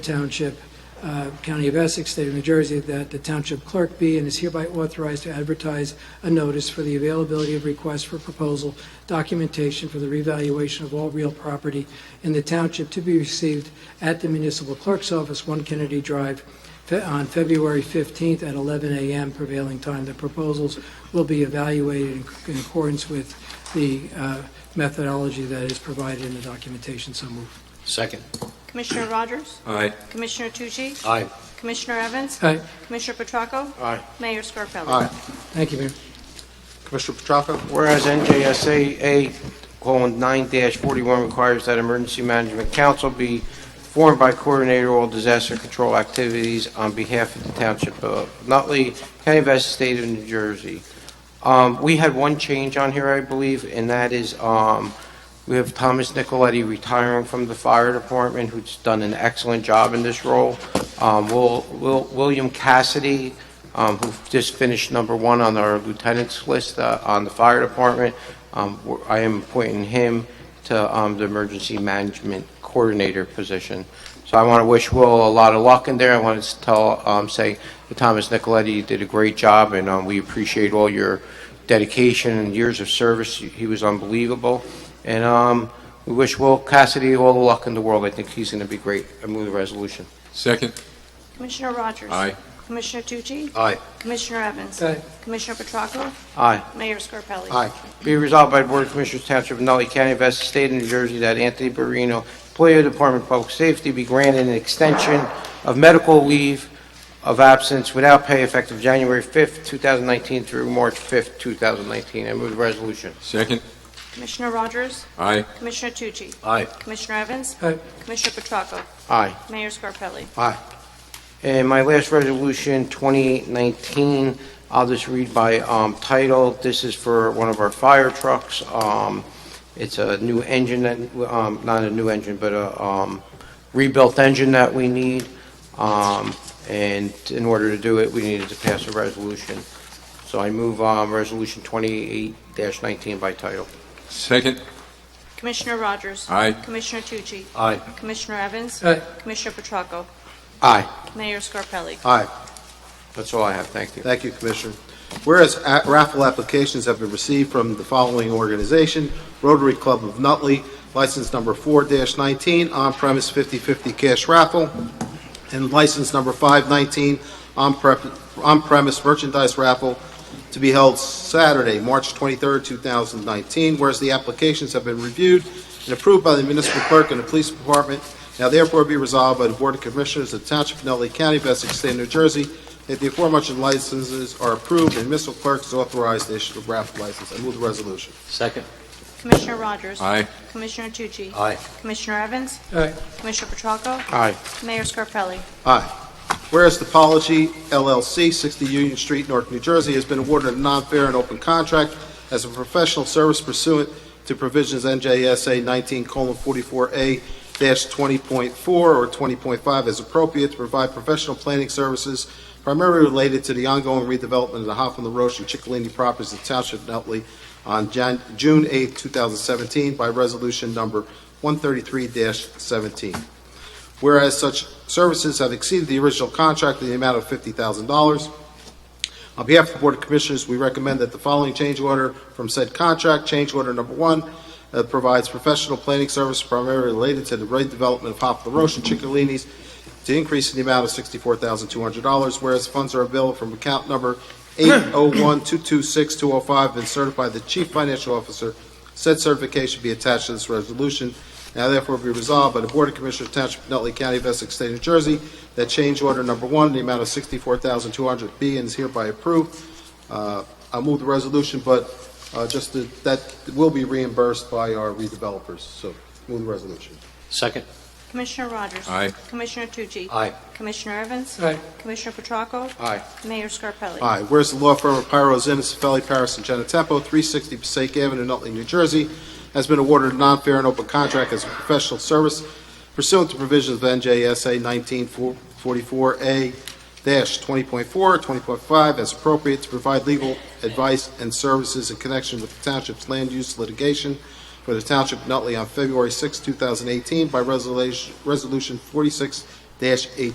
Township, uh, County of Essex, State of New Jersey, that the township clerk be and is hereby authorized to advertise a notice for the availability of requests for proposal documentation for the revaluation of all real property in the township to be received at the municipal clerk's office, 1 Kennedy Drive, fe- on February 15th at 11 a.m. prevailing time. The proposals will be evaluated in in accordance with the uh, methodology that is provided in the documentation. So moved. Second. Commissioner Rogers? Aye. Commissioner Tucci? Aye. Commissioner Evans? Aye. Commissioner Petracco? Aye. Mayor Scarpelli? Aye. Thank you, Mayor. Commissioner Petracco? Whereas NJSA A:9-41 requires that Emergency Management Council be formed by coordinator of all disaster control activities on behalf of the Township of Nutley, County of Essex, State of New Jersey. Um, We had one change on here, I believe, and that is um, we have Thomas Nicoletti retiring from the Fire Department, who's done an excellent job in this role. Um, Will- Will- William Cassidy um, who just finished number one on our lieutenant's list uh, on the fire department. Um, we're- I am appointing him to um, the emergency management coordinator position. So I want to wish Will a lot of luck in there. I want to tell, um, say, to Thomas Nicoletti, you did a great job, and um, we appreciate all your dedication and years of service. He was unbelievable. And um, we wish Will Cassidy all the luck in the world. I think he's going to be great. I move the resolution. Second. Commissioner Rogers? Aye. Commissioner Tucci? Aye. Commissioner Evans? Aye. Commissioner Petracco? Aye. Mayor Scarpelli? Aye. Be resolved by the Board of Commissioners Township of Nutley County of Essex State of New Jersey that Anthony Barino, employee of the Department of Public Safety, be granted an extension of medical leave of absence without pay effective January 5th, 2019 through March 5th, 2019. I move the resolution. Second. Commissioner Rogers? Aye. Commissioner Tucci? Aye. Commissioner Evans? Aye. Commissioner Petracco? Aye. Mayor Scarpelli? And my last resolution, 2819, I'll just read by um, title. This is for one of our fire trucks. Um, It's a new engine, that um, not a new engine, but a um, rebuilt engine that we need. Um, And in order to do it, we needed to pass a resolution. So I move um, Resolution 28-19 by title. Second. Commissioner Rogers? Aye. Commissioner Tucci? Aye. Commissioner Evans? Aye. Commissioner Petracco? Aye. Mayor Scarpelli? Aye. That's all I have. Thank you. Thank you, Commissioner. Whereas a- raffle applications have been received from the following organization, Rotary Club of Nutley, license number 4-19, on-premise 50/50 cash raffle, and license number 519, on-prep- on-premise merchandise raffle, to be held Saturday, March 23rd, 2019. Whereas the applications have been reviewed and approved by the municipal clerk and the police department, now therefore be resolved by the Board of Commissioners of the Township of Nutley County, of Essex State, of New Jersey, that the aforementioned licenses are approved and municipal clerk is authorized to issue the raffle license. I move the resolution. Second. Commissioner Rogers? Aye. Commissioner Tucci? Aye. Commissioner Evans? Aye. Commissioner Petracco? Aye. Mayor Scarpelli? Aye. Whereas Topology LLC, 60 Union Street, North New Jersey, has been awarded a non-fair and open contract as a professional service pursuant to provisions NJSA 19:44A-20.4 or 20.5 as appropriate to provide professional planning services primarily related to the ongoing redevelopment of the Hoffman LaRoche and Chicalini properties in Township of Nutley on Jan- June 8, 2017 by resolution number 133-17 whereas such services have exceeded the original contract in the amount of $50,000. On behalf of the Board of Commissioners, we recommend that the following change order from said contract, change order number one, uh, provides professional planning service primarily related to the redevelopment of Poplar Roche and Chicalini's to increase in the amount of $64,200, whereas funds are available from account number 801226205 and certified the Chief Financial Officer. Said certification be attached to this resolution. Now therefore be resolved by the Board of Commissioners Township of Nutley County of Essex State of New Jersey that change order number one, in the amount of $64,200 be and is hereby approved. Uh, I move the resolution, but uh, just that, that will be reimbursed by our redevelopers, so move the resolution. Second. Commissioner Rogers? Aye. Commissioner Tucci? Aye. Commissioner Evans? Aye. Commissioner Petracco? Aye. Mayor Scarpelli? Aye. Whereas the law firm of Pyro Innisfilli, Paris, and Genetempo, 360 Passaic Avenue, Nutley, New Jersey, has been awarded a non-fair and open contract as a professional service pursuant to provisions of NJSA 1944A-20.4, 20.5, as appropriate to provide legal advice and services in connection with the township's land use litigation for the township of Nutley on February 6, 2018 by resolution resolution 46 dash eight